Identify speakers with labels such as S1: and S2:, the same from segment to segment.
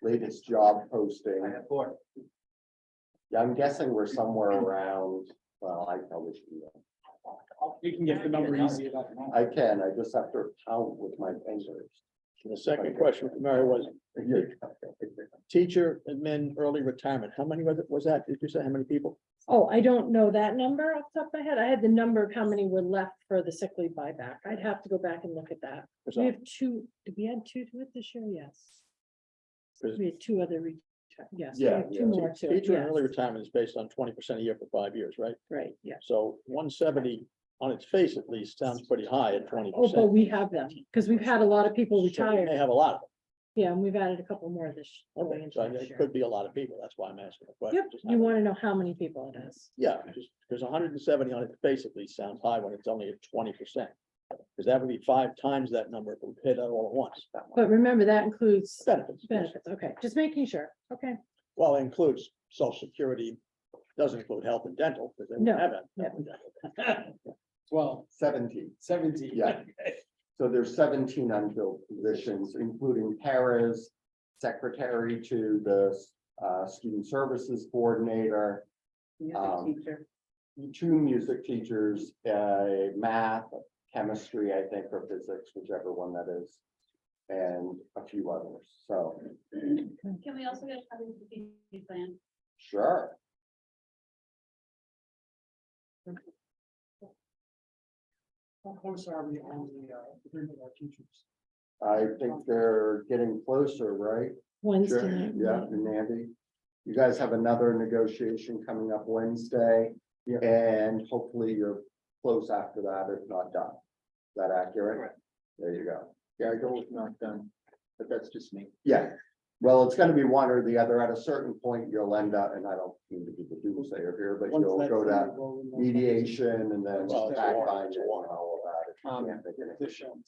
S1: latest job posting.
S2: I have four.
S1: Yeah, I'm guessing we're somewhere around, well, I probably should, know.
S3: You can get the number easy.
S1: I can, I just have to count with my fingers.
S3: The second question from Mary was, teacher and men early retirement, how many was it, was that, did you say how many people?
S4: Oh, I don't know that number off the top of my head. I had the number of how many were left for the sick leave buyback. I'd have to go back and look at that.
S3: Because
S4: We
S3: I-
S4: have two, did we add two to it this year? Yes.
S3: Is-
S4: We had two other, re- yes, we
S1: Yeah,
S4: have
S1: yeah.
S4: two more to it,
S3: Teacher and early
S4: yes,
S3: retirement is based on twenty percent a year for five years, right?
S4: right, yeah.
S3: So one seventy on its face at least sounds pretty high at twenty
S4: Oh, but
S3: percent.
S4: we have them, because we've had a lot of people
S3: They
S4: retire.
S3: have a lot of
S4: Yeah, and we've added a couple more this.
S3: them.
S4: going
S3: Okay,
S4: into
S3: so
S4: next
S3: it
S4: year.
S3: could be a lot of people. That's why I'm asking. the question.
S4: Yep, you want to know how many people it is.
S3: Yeah, just because hundred and seventy on its face at least sounds high when it's only at twenty percent. Because that would be five times that number if we paid that all at once.
S4: But remember, that includes
S3: Benefits. yes.
S4: benefits. Okay, just making sure. Okay,
S1: Um,
S3: Well, it includes social security, doesn't include health and dental, because they
S4: No,
S3: don't have it.
S4: no.
S2: Twelve,
S1: Seventeen,
S2: seventeen.
S1: Yeah. so there's seventeen unfilled positions, including paras, secretary to the uh, student services coordinator, Um,
S4: teacher.
S1: two music teachers, uh, math, chemistry, I think, or physics, whichever one that is, and a few others, so,
S5: Can we also get a copy of the PPP plan?
S1: sure.
S2: How close are we on the, uh, agreement with our teachers?
S1: I think they're getting closer, right?
S4: Wednesday
S1: Sure,
S4: night.
S1: yeah, and Andy, you guys have another negotiation coming up Wednesday.
S2: Yeah.
S1: And hopefully you're close after that, if not done. Is that accurate? There you go.
S2: Yeah, I go with not done, but that's just me.
S1: Yeah, well, it's gonna be one or the other. At a certain point, you'll end up, and I don't mean to be the doomsayer here, but you'll go to mediation and then
S3: Well, it's a
S1: back
S3: war,
S1: by
S3: it's
S1: you
S3: a
S1: and
S3: war.
S1: all of
S2: Um,
S1: that. if you can't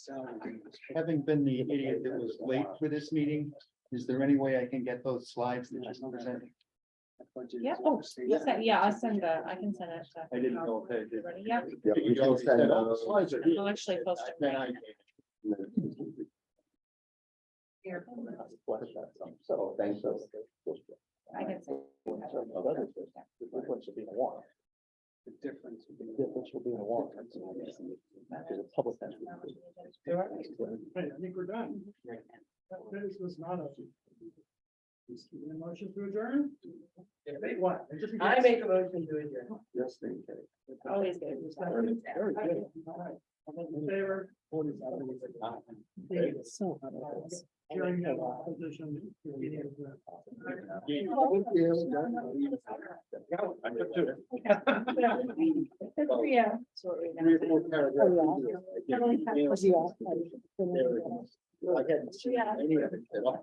S1: make it.
S2: Having been the idiot that was late for this meeting, is there any way I can get those slides that just presented?
S5: Yeah, oh, Yeah, I'll send that, I can send it.
S2: I didn't know if I did.
S5: Ready? Yeah.
S1: Yeah, we can send those.
S5: I'll actually post it
S2: Then
S5: right
S2: I-
S5: here.
S1: So, thank you.
S5: I can send
S3: Difference would be in a warrant.
S2: The difference. would be-
S3: Difference would be in a warrant. Because the public has-
S2: Right, I think we're done. This was not a. Is there a Motion to adjourn? If they want. I make a motion to adjourn.
S1: Yes, thank you.
S2: Oh,
S5: Always good.
S2: Very good. In Favor.
S4: They're So otherwise.
S2: Hearing no opposition. meeting is adjourned.
S3: I took two.
S5: Yeah.
S3: Three or four paragraphs. There
S5: Yeah.
S3: it is. I hadn't seen any of it at all.